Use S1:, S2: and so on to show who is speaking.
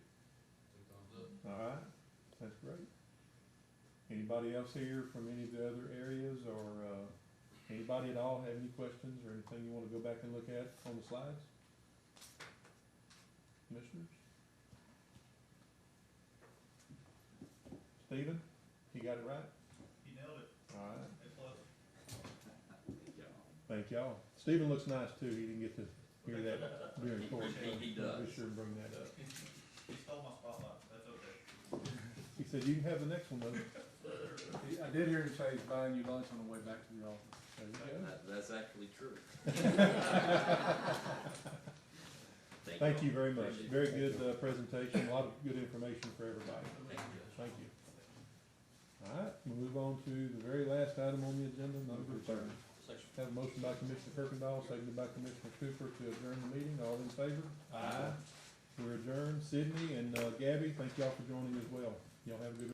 S1: All right, that's great. Anybody else here from any of the other areas or, uh, anybody at all have any questions or anything you wanna go back and look at on the slides? Commissioners? Stephen, you got it right?
S2: You nailed it.
S1: All right.
S2: A plus.
S1: Thank y'all. Stephen looks nice too. He didn't get to hear that during court.
S2: Appreciate
S1: Be
S3: He does.
S1: sure and bring that up.
S2: You stole my spotlight. That's okay.
S1: He said, you can have the next one though. There
S4: I did hear him say he's buying you lunch on the way back to the office.
S1: you go.
S3: That, that's actually true.
S1: Thank you very much.
S3: Appreciate it.
S1: Very good, uh, presentation. A lot of good information for everybody.
S3: Thank you.
S1: Thank you. All right, we move on to the very last item on the agenda, number thirty. Have a motion by Commissioner Kirkendall, seconded by Commissioner Cooper to adjourn the meeting. All in favor? Aye. We're adjourned. Sydney and, uh, Gabby, thank y'all for joining as well. Y'all have a good